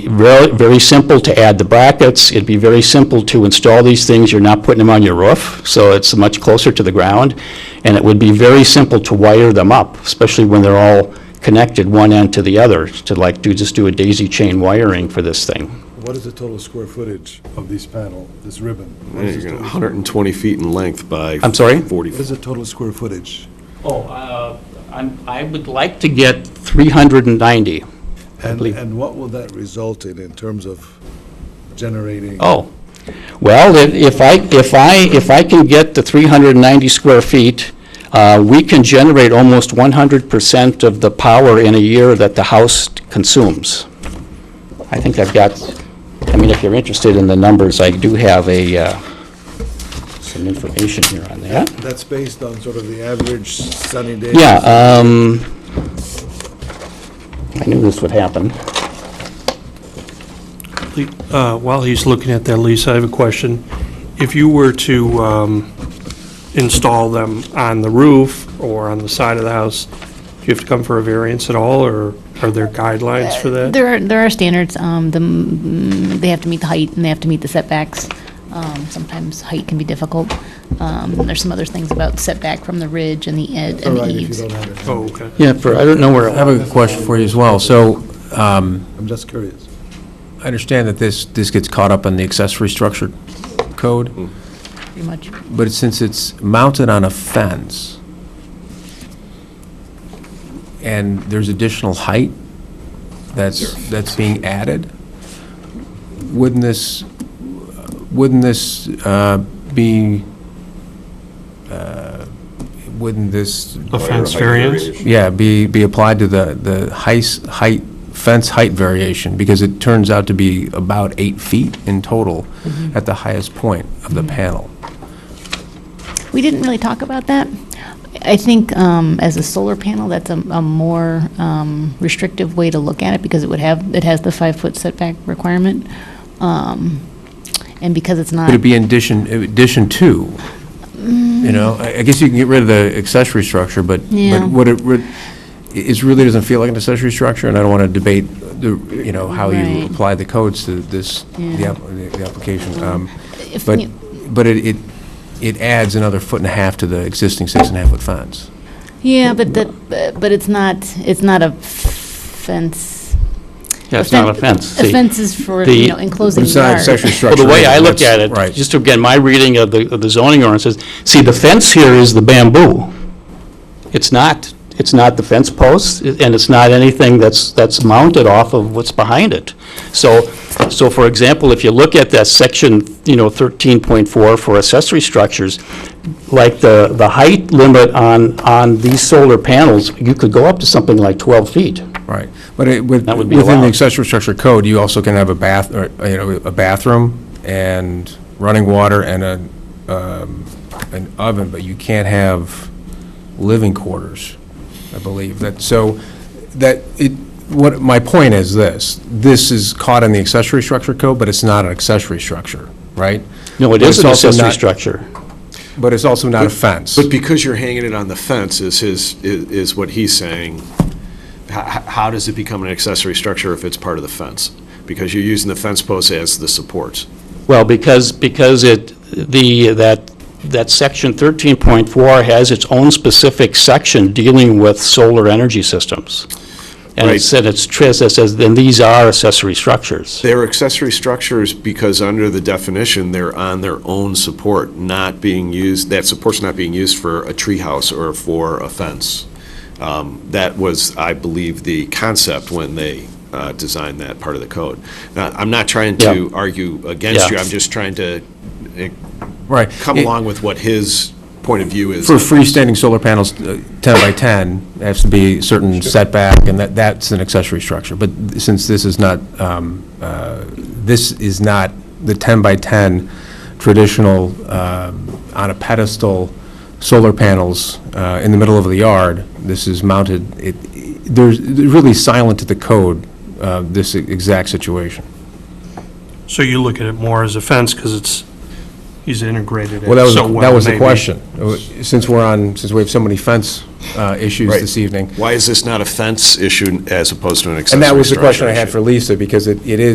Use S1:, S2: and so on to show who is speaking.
S1: very, very simple to add the brackets. It'd be very simple to install these things. You're not putting them on your roof, so it's much closer to the ground. And it would be very simple to wire them up, especially when they're all connected one end to the other, to like, do, just do a daisy chain wiring for this thing.
S2: What is the total square footage of this panel, this ribbon? What is
S3: You're
S2: the
S3: gonna-
S2: total-
S3: 120 feet in length by...
S1: I'm sorry?
S3: 40.
S2: What is the total square footage?
S1: Oh, uh, I'm, I would like to get 390.
S2: And,
S1: believe-
S2: and what will that result in, in terms of generating?
S1: Oh, well, then, if I, if I, if I can get the 390 square feet, uh, we can generate almost 100% of the power in a year that the house consumes. I think I've got, I mean, if you're interested in the numbers, I do have a, uh, some information here on that.
S2: That's based on sort of the average sunny day?
S1: Yeah, um, I knew this would happen.
S4: Uh, While he's looking at that, Lisa, I have a question. If you were to um, install them on the roof or on the side of the house, do you have to come for a variance at all, or are there guidelines for that?
S5: There are, there are standards, um, the, mm, they have to meet the height and they have to meet the setbacks. Um, sometimes height can be difficult. Um, there's some other things about setback from the ridge and the ed
S2: All
S5: and the
S2: right, if you
S5: eaves.
S2: don't have it.
S4: Oh, okay.
S1: Yeah, for, I don't know where,
S6: I have a question for you as well. So
S2: I'm just curious.
S6: I understand that this, this gets caught up in the accessory structure code,
S5: Pretty much.
S6: but since it's mounted on a fence, and there's additional height that's, that's being added, wouldn't this, wouldn't this uh, be, uh, wouldn't this
S4: A fence variance?
S6: Yeah, be, be applied to the, the heis- height, fence height variation, because it turns out to be about eight feet in total
S5: Mm-hmm.
S6: at the highest point of the panel.
S5: We didn't really talk about that. I think um, as a solar panel, that's a, a more um, restrictive way to look at it because it would have, it has the five-foot setback requirement. Um, and because it's not.
S6: Could it be in addition, addition to, you know, I I guess you can get rid of the accessory structure, but,
S5: Mm. Yeah.
S6: but what it, re- it really doesn't feel like an accessory structure, and I don't want to debate, the you know, how you
S5: Right.
S6: apply the codes to this, the
S5: Yeah. Mm.
S6: app- the the application. Um,
S5: if
S6: But,
S5: you-
S6: but it, it it adds another foot and a half to the existing six and a half foot fence.
S5: Yeah, but the, but it's not, it's not a fence.
S1: yeah, it's not a fence.
S5: A
S1: See,
S5: fence is for,
S1: the-
S5: you know, enclosing yard.
S1: Well,
S6: structure.
S1: the way I look at it,
S6: Right.
S1: just again, my reading of the, of the zoning ordinance is, see, the fence here is the bamboo. It's not, it's not the fence posts, and it's not anything that's, that's mounted off of what's behind it. So, so for example, if you look at that section, you know, 13.4 for accessory structures, like the, the height limit on, on these solar panels, you could go up to something like 12 feet.
S6: Right. But it, with,
S1: That would be
S6: within
S1: allowed.
S6: the accessory structure code, you also can have a bath, or, you know, a bathroom and running water and a, um, an oven, but you can't have living quarters, I believe. That, so, that, it, what, my point is this, this is caught in the accessory structure code, but it's not an accessory structure, right?
S1: No, it
S6: But
S1: is
S6: it's
S1: an
S6: also
S1: accessory
S6: not-
S1: structure.
S6: But it's also not a fence.
S3: But because you're hanging it on the fence is his, i- is what he's saying, h- h- how does it become an accessory structure if it's part of the fence? Because you're using the fence posts as the supports.
S1: Well, because, because it, the, that, that section 13.4 has its own specific section dealing with solar energy systems. And it
S3: Right.
S1: said, it's, tris- it says, then these are accessory structures.
S3: They're accessory structures because under the definition, they're on their own support, not being used, that support's not being used for a treehouse or for a fence. Um, That was, I believe, the concept when they uh, designed that part of the code. Now, I'm not trying to argue against you,
S1: Yeah.
S3: I'm just trying to eh,
S6: Right.
S3: come
S6: It-
S3: along with what his point of view is.
S6: For freestanding solar panels, uh, 10 by 10, it has to be a certain setback, and that, that's an accessory structure. But since this is not, um, uh, this is not the 10 by 10 traditional um, on a pedestal solar panels uh, in the middle of the yard, this is mounted, it, it- there's, it's really silent to the code, uh, this exact situation.
S4: So you look at it more as a fence because it's, he's integrated it
S6: Well, that was,
S4: so well.
S6: that was the
S4: maybe.
S6: question. Uh, Since we're on, since we have so many fence uh, issues
S3: Right.
S6: this evening,
S3: Why is this not a fence issue as opposed to an accessory
S6: And
S3: structure?
S6: that was the question I
S3: issue?
S6: had for Lisa, because it, it is